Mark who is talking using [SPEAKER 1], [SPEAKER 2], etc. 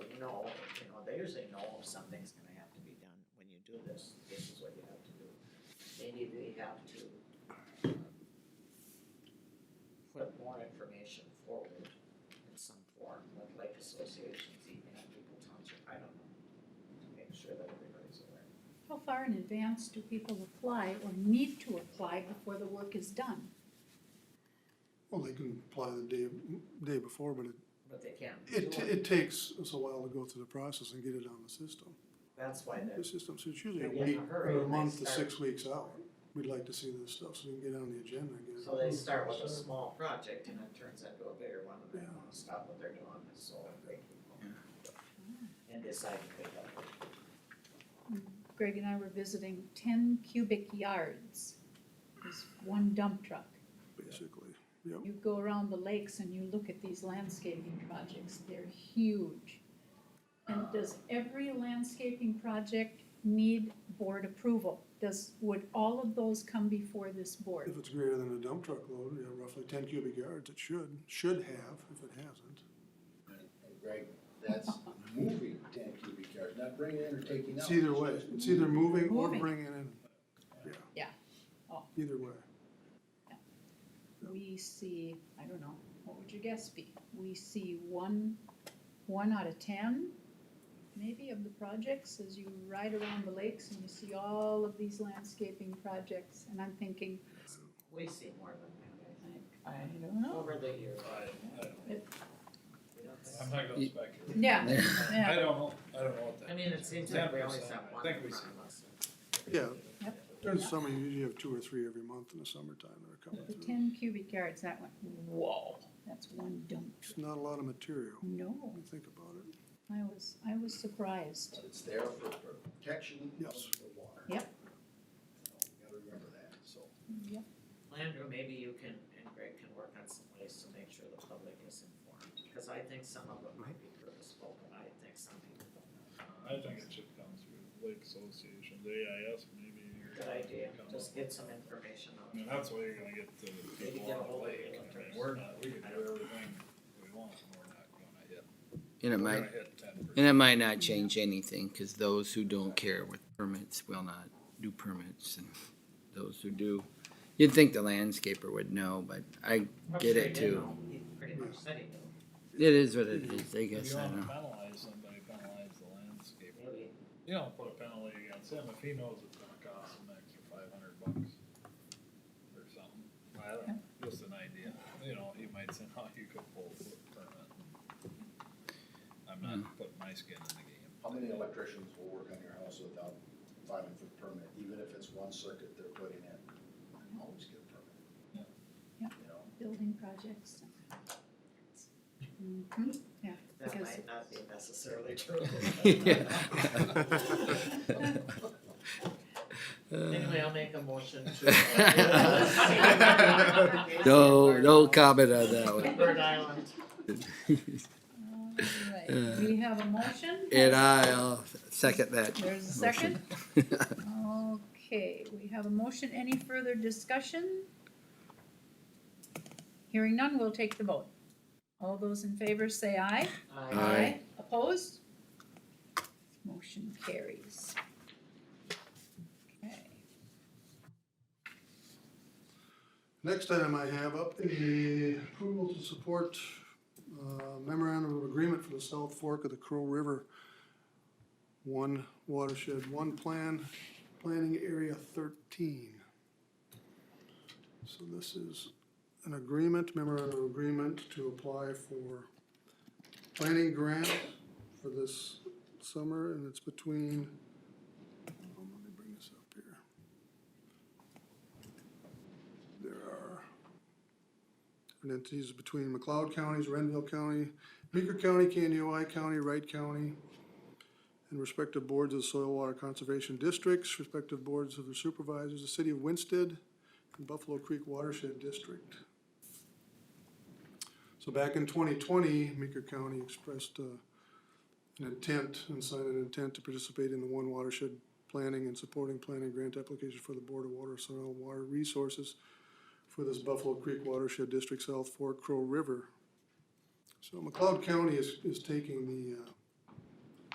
[SPEAKER 1] players, they know if something's gonna have to be done when you do this, this is what you have to do. Maybe they have to uh, put more information forward in some form, like, like associations, even people, township, I don't know, to make sure that everybody's aware.
[SPEAKER 2] How far in advance do people apply or need to apply before the work is done?
[SPEAKER 3] Well, they can apply the day, day before, but
[SPEAKER 1] But they can't do
[SPEAKER 3] it, it,
[SPEAKER 1] it,
[SPEAKER 3] it takes us a while to go through the process and get it on the system.
[SPEAKER 1] that's why
[SPEAKER 3] The
[SPEAKER 1] they're,
[SPEAKER 3] system, so it's usually a
[SPEAKER 1] They get in
[SPEAKER 3] week,
[SPEAKER 1] a hurry
[SPEAKER 3] or a
[SPEAKER 1] and they
[SPEAKER 3] month to
[SPEAKER 1] start.
[SPEAKER 3] six weeks out. We'd like to see this stuff, so we can get it on the agenda and get it.
[SPEAKER 1] so they start with a
[SPEAKER 3] approved.
[SPEAKER 1] small project and it turns into a bigger one and they
[SPEAKER 3] Yeah.
[SPEAKER 1] wanna stop what they're doing, and so they keep going. And decide to pick up.
[SPEAKER 2] Greg and I were visiting ten cubic yards, is one dump truck.
[SPEAKER 3] Basically, yep.
[SPEAKER 2] You go around the lakes and you look at these landscaping projects, they're huge. And does every landscaping project need board approval? Does, would all of those come before this board?
[SPEAKER 3] If it's greater than a dump truck load, you know, roughly ten cubic yards, it should, should have, if it hasn't.
[SPEAKER 4] And Greg, that's moving ten cubic yards, not bringing in or taking out.
[SPEAKER 3] It's either way, it's either moving or
[SPEAKER 2] Moving.
[SPEAKER 3] bringing in, yeah.
[SPEAKER 2] Yeah. Oh.
[SPEAKER 3] Either way,
[SPEAKER 2] We see, I don't know, what would your guess be? We see one, one out of ten, maybe of the projects, as you ride around the lakes and you see all of these landscaping projects, and I'm thinking,
[SPEAKER 1] We see more than that, I think,
[SPEAKER 2] I don't
[SPEAKER 5] Oh.
[SPEAKER 2] know.
[SPEAKER 1] over the years.
[SPEAKER 6] I'm not gonna speculate.
[SPEAKER 2] Yeah,
[SPEAKER 6] I
[SPEAKER 2] yeah,
[SPEAKER 6] don't know, I don't know what that.
[SPEAKER 1] I mean, it seems like we always have one in front of us.
[SPEAKER 3] yeah.
[SPEAKER 2] Yep.
[SPEAKER 3] During the summer, you usually have two or three every month in the summertime that are coming through.
[SPEAKER 2] ten cubic yards, that one, whoa, that's one dump.
[SPEAKER 3] It's not a lot of material,
[SPEAKER 2] No,
[SPEAKER 3] when you think about it.
[SPEAKER 2] I was, I was surprised.
[SPEAKER 4] But It's there for protection of
[SPEAKER 3] Yes.
[SPEAKER 4] the water.
[SPEAKER 2] Yep.
[SPEAKER 4] You Gotta remember that, so.
[SPEAKER 2] Yep,
[SPEAKER 1] Landrew, maybe you can, and Greg can work on some ways to make sure the public is informed, because I think some of it might be purposeful, but I think some people
[SPEAKER 6] I
[SPEAKER 1] don't know.
[SPEAKER 6] think it should come through Lake Association, the AIS maybe. or
[SPEAKER 1] Good idea,
[SPEAKER 6] come up.
[SPEAKER 1] just get some information
[SPEAKER 6] I
[SPEAKER 1] on it.
[SPEAKER 6] mean, that's where you're gonna get the
[SPEAKER 1] Maybe
[SPEAKER 6] people
[SPEAKER 1] get a
[SPEAKER 6] on
[SPEAKER 1] hold of
[SPEAKER 6] the lake, I mean,
[SPEAKER 1] realtors.
[SPEAKER 6] we're not, we can do everything we want, and we're not gonna hit.
[SPEAKER 5] And it
[SPEAKER 6] we're
[SPEAKER 5] might,
[SPEAKER 6] gonna hit 10%.
[SPEAKER 5] and it might not change anything, cause those who don't care with permits will not do permits, and those who do. You'd think the landscaper would know, but I,
[SPEAKER 1] I'm
[SPEAKER 5] Get
[SPEAKER 1] sure
[SPEAKER 5] it
[SPEAKER 1] you
[SPEAKER 5] too.
[SPEAKER 1] know, He pretty much said he knew,
[SPEAKER 5] it is what it is, I
[SPEAKER 6] If
[SPEAKER 5] guess,
[SPEAKER 6] you
[SPEAKER 5] I
[SPEAKER 6] wanna
[SPEAKER 5] know.
[SPEAKER 6] penalize somebody, penalize the landscaper.
[SPEAKER 1] maybe,
[SPEAKER 6] You don't put a penalty against him if he knows it's gonna cost him an extra five hundred bucks or something. I don't know, just an idea. You know, he might say, oh, you could pull a permit. I'm not putting my skin in the game.
[SPEAKER 4] How many electricians will work on your house without filing for permit, even if it's one circuit they're putting in? You Always get a permit.
[SPEAKER 6] Yeah.
[SPEAKER 2] Yeah.
[SPEAKER 4] You know,
[SPEAKER 2] building projects. Mhm, yeah,
[SPEAKER 1] that
[SPEAKER 2] because
[SPEAKER 1] might not be necessarily true. Anyway, I'll make a motion to.
[SPEAKER 5] No, no Uh, comment on that one.
[SPEAKER 1] Bird Island.
[SPEAKER 2] All right, we have a motion.
[SPEAKER 5] Uh, And I'll second that.
[SPEAKER 2] There's a
[SPEAKER 5] motion.
[SPEAKER 2] second. Okay, we have a motion. Any further discussion? Hearing none, we'll take the vote. All those in favor say aye.
[SPEAKER 5] Aye.
[SPEAKER 2] Opposed? Motion carries. Okay.
[SPEAKER 3] Next item I have up is the approval to support uh, memorandum of agreement for the South Fork of the Crow River. One watershed, one plan, planning area thirteen. So this is an agreement, memorandum of agreement to apply for planning grant for this summer and it's between, hold on, let me bring this up here. There are and entities between McLeod counties, Renville County, Meeker County, Candioi County, Wright County, and respective boards of the soil water conservation districts, respective boards of their supervisors, the city of Winston, and Buffalo Creek Watershed District. So back in twenty twenty, Meeker County expressed uh, an intent and signed an intent to participate in the One Watershed Planning and Supporting Planning Grant Application for the Board of Water, Soil, Water Resources for this Buffalo Creek Watershed District South Fork Crow River. So McLeod County is, is taking the, uh,